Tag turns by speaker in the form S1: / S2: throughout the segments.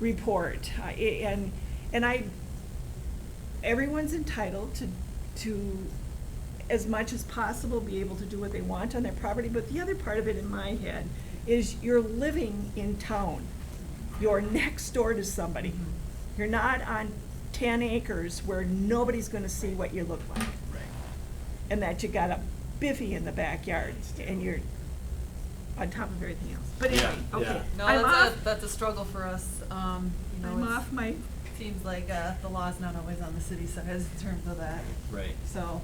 S1: report. I- And, and I, everyone's entitled to, to, as much as possible, be able to do what they want on their property, but the other part of it in my head is you're living in town. You're next door to somebody. You're not on ten acres where nobody's gonna see what you look like. And that you got a biffy in the backyard and you're on top of everything else. But
S2: Yeah,
S1: anyway, okay.
S2: yeah.
S3: No,
S1: I'm
S3: that's
S1: off-
S3: a, that's a struggle for us, um, you know,
S1: I'm
S3: it's-
S1: off my,
S3: Seems like, uh, the law's not always on the city side in terms of that,
S2: Right.
S3: so.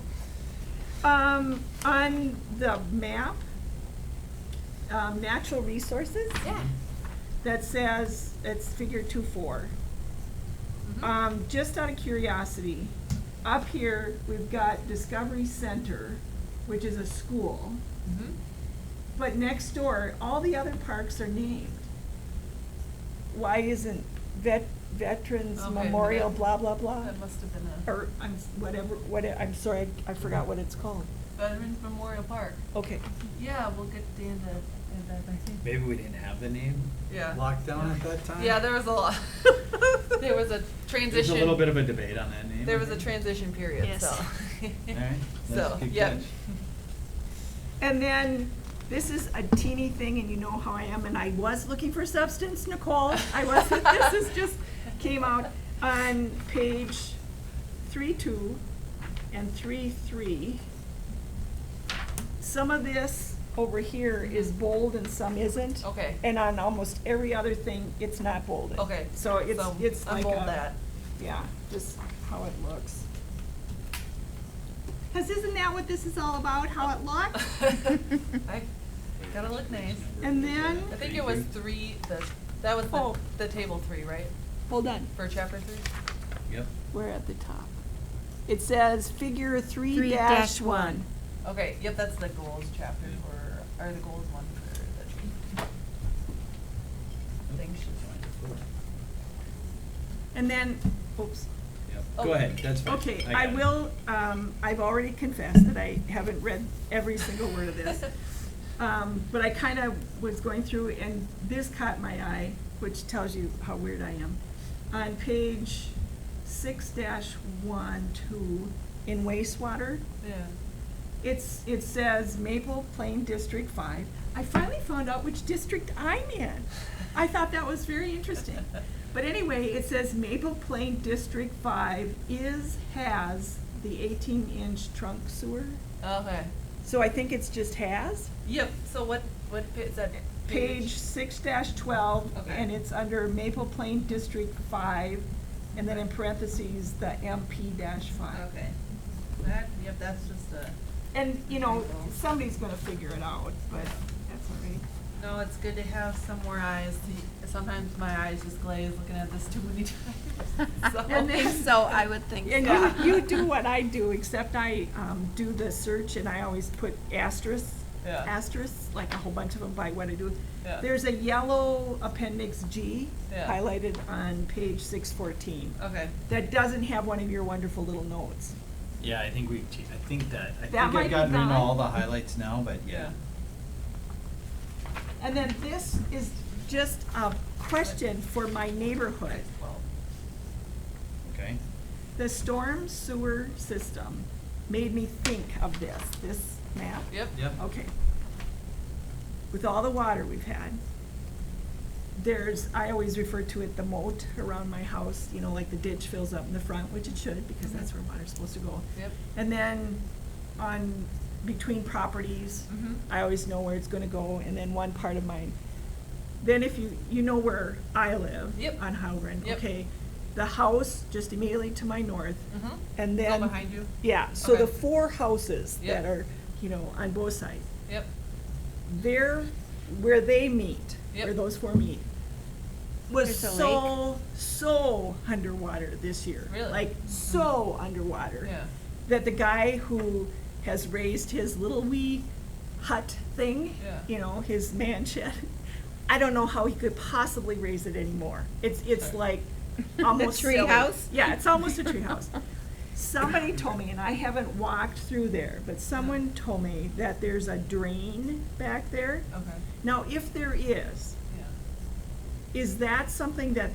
S1: um, on the map, um, natural resources,
S3: Yeah.
S1: that says, it's figure two four.
S3: Mm-hmm.
S1: Um, just out of curiosity, up here, we've got Discovery Center, which is a school, Mm-hmm. but next door, all the other parks are named. Why isn't Vet, Veterans
S3: Okay,
S1: Memorial,
S3: that-
S1: blah, blah, blah?
S3: That must have been a
S1: Or, I'm, s- whatever, what, it- I'm sorry, I forgot what it's called.
S3: Veterans Memorial Park.
S1: Okay.
S3: Yeah, we'll get Dan to, add that, I think.
S2: Maybe we didn't have the name
S3: Yeah.
S2: locked down at that time.
S3: Yeah, there was a lot, there was a
S2: There's
S3: transition.
S2: a little bit of a debate on that name.
S3: There
S2: I
S3: was a
S2: think.
S3: transition period,
S4: Yes.
S3: so.
S2: All right, that's a
S3: So,
S2: good
S3: yeah.
S2: catch.
S1: And then, this is a teeny thing, and you know how I am, and I was looking for substance, Nicole. I was, this is just, came out on page three two and three three. Some of this over here is bold and some isn't.
S3: Okay.
S1: And on almost every other thing, it's not bolded.
S3: Okay.
S1: So it's,
S3: So,
S1: it's like
S3: unbold
S1: a-
S3: that.
S1: Yeah, just how it looks. Cause isn't that what this is all about, how it looks?
S3: I gotta look nice.
S1: And then-
S3: I think it was three, the, that was
S1: Oh.
S3: the, the table three, right?
S1: Hold on.
S3: For chapter three?
S2: Yep.
S1: We're at the top. It says figure three
S4: Three
S1: dash
S4: dash
S1: one.
S4: one.
S3: Okay, yep, that's the goals chapter for, or the goals one for the thing should.
S1: And then, oops.
S2: Yep,
S3: Oh.
S2: go ahead, that's fine.
S1: Okay,
S2: got
S1: I
S2: it.
S1: will, um, I've already confessed that I haven't read every single word of this. Um, but I kind of was going through and this caught my eye, which tells you how weird I am. On page six dash one, two, in wastewater,
S3: Yeah.
S1: it's, it says Maple Plain District Five. I finally found out which district I'm in. I thought that was very interesting. But anyway, it says Maple Plain District Five is, has the eighteen inch trunk sewer.
S3: Okay,
S1: So I think it's just has.
S3: yep, so what, what pa- is that?
S1: Page six dash twelve,
S3: Okay.
S1: and it's under Maple Plain District Five, and then in parentheses, the MP dash five.
S3: Okay. That, yep, that's just a,
S1: And, you know, somebody's gonna figure it out, but that's all right.
S3: no, it's good to have some more eyes. to- Sometimes my eyes just glaze looking at this too many times, so.
S1: And then-
S4: So I would think so.
S1: And you, you do what I do, except I, um, do the search and I always put asterisks,
S3: Yeah.
S1: asterisks, like a whole bunch of them by what I do.
S3: Yeah.
S1: There's a yellow appendix G
S3: Yeah. Oh.
S1: highlighted on page six fourteen.
S3: Okay,
S1: That doesn't have one of your wonderful little notes.
S2: Yeah, I think we've, che- I think that, I think
S1: That might be
S2: I've gotten rid of
S1: gone.
S2: all the highlights now, but yeah.
S3: yeah.
S1: And then this is just a question for my neighborhood.
S3: Well,
S2: Okay,
S1: The storm sewer system made me think of this, this map.
S3: Yep.
S2: yep.
S1: Okay. With all the water we've had, there's, I always refer to it the moat around my house, you know, like the ditch fills up in the front, which it should, because that's where water's supposed to go.
S3: Yep.
S1: And then on, between properties,
S3: Mhm.
S1: I always know where it's gonna go, and then one part of mine. Then if you, you know where I live.
S3: Yep.
S1: On Howren,
S3: Yep.
S1: okay? The house just immediately to my north,
S3: Mhm.
S1: and
S3: Go
S1: then.
S3: behind you?
S1: Yeah, so the
S3: Okay.
S1: four houses that
S3: Yep.
S1: are, you know, on both sides,
S3: Yep.
S1: they're, where they meet, where
S3: Yep.
S1: those four meet, was
S4: There's a lake.
S1: so, so underwater this year.
S3: Really? Mm-hmm.
S1: Like, so underwater.
S3: Yeah.
S1: That the guy who has raised his little wee hut thing,
S3: Yeah.
S1: you know, his man shed, I don't know how he could possibly raise it anymore. It's, it's
S3: Okay.
S1: like almost
S4: tree
S1: silly.
S4: house?
S1: Yeah, it's almost a tree house. Somebody told me, and I haven't walked through there, but someone told me that there's a drain
S3: Oh.
S1: back there.
S3: Okay.
S1: Now, if there is,
S3: Yeah.
S1: is that something that